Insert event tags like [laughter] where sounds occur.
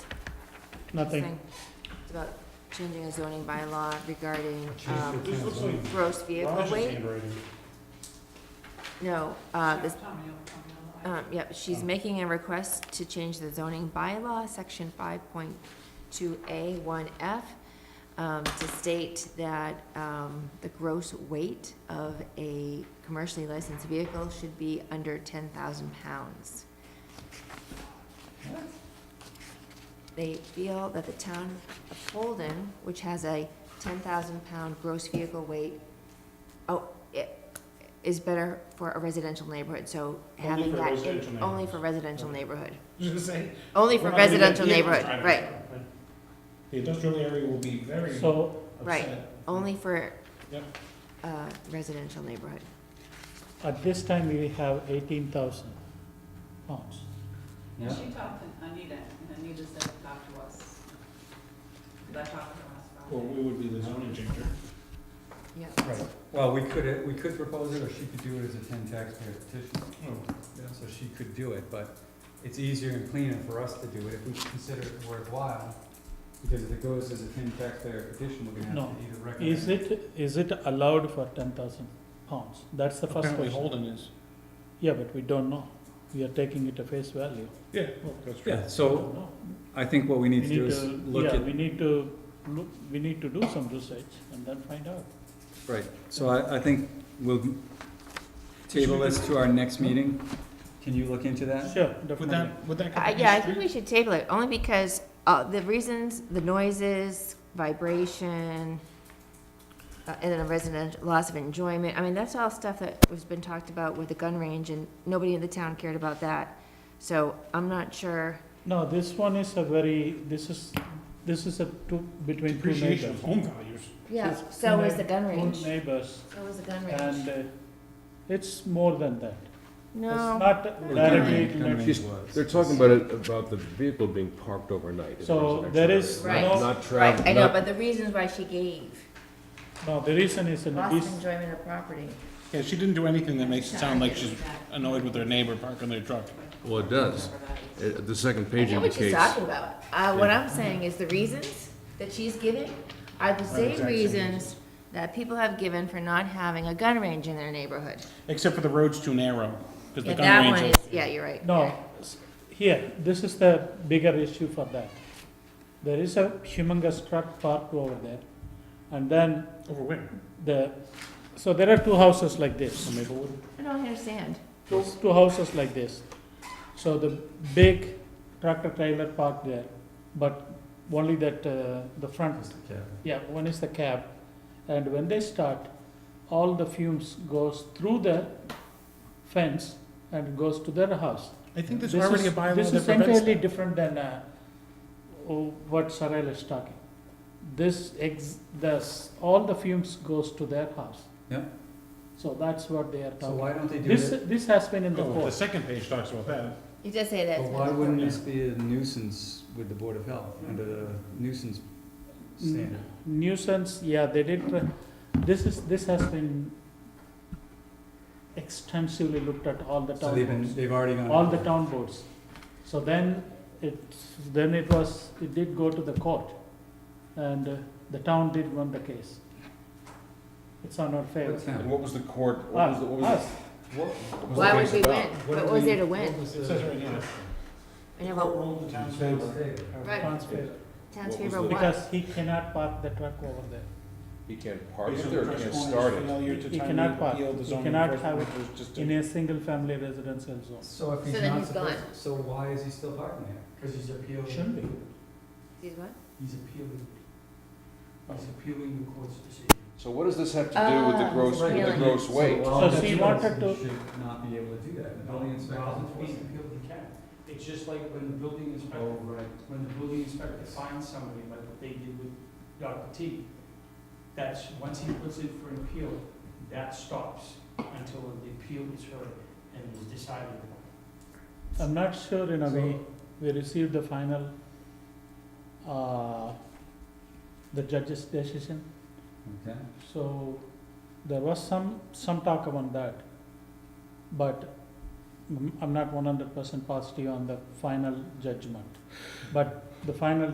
Nothing. thing. It's about changing a zoning bylaw regarding Change um, the This looks like gross vehicle Raj's weight. handwriting. No, uh, this, Tommy, Tommy, um, yep, she's making a request to change the zoning bylaw, section five point two A one F, um, to state that, um, the gross weight of a commercially licensed vehicle should be under ten thousand pounds. They feel that the town of Holden, which has a ten thousand pound gross vehicle weight, oh, it is better for a residential neighborhood, so Only having for that, residential in- only neighborhoods. for residential neighborhood. [laughs] Just saying. Only We're for not gonna get residential vehicles neighborhood, driving right, around, The industrial area will be very upset. So Right. only for, Yep. uh, residential neighborhood. at this time, we have eighteen thousand pounds. Tommy. She talked to Anita, and Anita said to talk to us. 'Cause I talked to her last Friday. Well, we would be the zoning changer. Yeah. Right, well, we could, we could propose it, or she could do it as a ten taxpayer petition. Oh, So she could do it, but it's easier and cleaner for us to do it if we consider it worthwhile. Because if it goes as a ten taxpayer petition, we're gonna have No. to either recommend. Is it, is it allowed for ten thousand pounds? That's the first Apparently question. Holden is. Yeah, but we don't know. We are taking it at face value. Yeah, that's Yeah, We so don't know. I think what we We need to do need is to, look yeah, at, we need to, look. we need to do some research and then find out. right, so I, I think we'll table this to our next meeting. Can you look into that? Sure, Would definitely. that, would that? I, Uh, yeah, I think we should table it, only because, uh, the reasons, the noises, vibration, uh, and then a resident, loss of enjoyment, I mean, that's all stuff that was been talked about with the gun range, and nobody in the town cared about that. So I'm not sure, No, this one is a very, this is, this is a two, between two Appreciation neighbors. of home values. yeah, It's so two is neigh- the gun two range, neighbors, so is the gun range. and uh, it's more than that. It's No, not directly, related. They're talking about it, about the vehicle being parked overnight. as So residential there is area, Right. Not not right, travel, I know, not but the reasons why she gave, no, the reason is in loss this, of enjoyment of property. Yeah, she didn't do anything that makes it sound like she's annoyed with her neighbor parking their truck. Well, it does. Uh, The second I page know what she's indicates. talking about. Uh, what I'm saying is the reasons that she's giving are the same reasons that people have given for not having a gun range in their neighborhood. Except for the road's too narrow, because the Yeah, gun that range. one is- is, yeah, you're right. no, s- here, this is the bigger issue for that. There is a humongous truck parked over there, and then Over where? the, so there are two houses like this. Over Maplewood? I don't understand. two, two houses like this. So the big tractor trailer parked there, but only that, uh, the front, yeah, one is the cab. And when they start, all the fumes goes through the fence and goes to their house. I think there's This already a is- bylaw This that is prevents entirely that. different than, uh, oh, what Sorrel is talking. This ex, this, all the fumes goes to their house. Yeah. So that's what they are So talking. why don't they do This, it, this has been in the Oh, the course. second page talks about that. You just say that. but why wouldn't this be a nuisance with the Board of Health, under the nuisance standard? Nuisance, yeah, they did, try- this is, this has been extensively looked at all the So town they've been, boards, they've already gone. all the town boards. So then it, then it was, it did go to the court, and uh, the town did win the case. It's on our favor. What town? What was the court, what was Us, the, what was us. What- the? Why would we win? What What did was we- there to what win? was It the- says right here. I know, Court but ruled the town's Town's favor. favor. Our Right. town's favor. town's What was favorite the- what? Because he cannot park the truck over there. He can't park Based it on there, the he press can't corner's start it. failure to He timely cannot park. appeal the He zoning cannot enforcement have was just a- In a single-family residential zone. So if So he's then not he's supposed, gone. so why is he still parking there? Cause he's appealing. Shouldn't be. He's what? He's appealing, he's appealing the court's decision. So what does this have to do with the Ah, gross, with the really? gross weight? all So the she judges wanted to- Should not be able to do that, the No, building inspector. well, it's being he can. It's just like when the building inspector. Oh, right. When the building inspector finds somebody, like what they did with Dr. T, that's, once he puts in for an appeal, that stops until the appeal is heard and is decided I'm not sure, you know, we, So- we received the final, uh, the judge's decision, Okay. so there was some, some talk about that. But mm, I'm not one hundred percent positive on the final judgment. But the final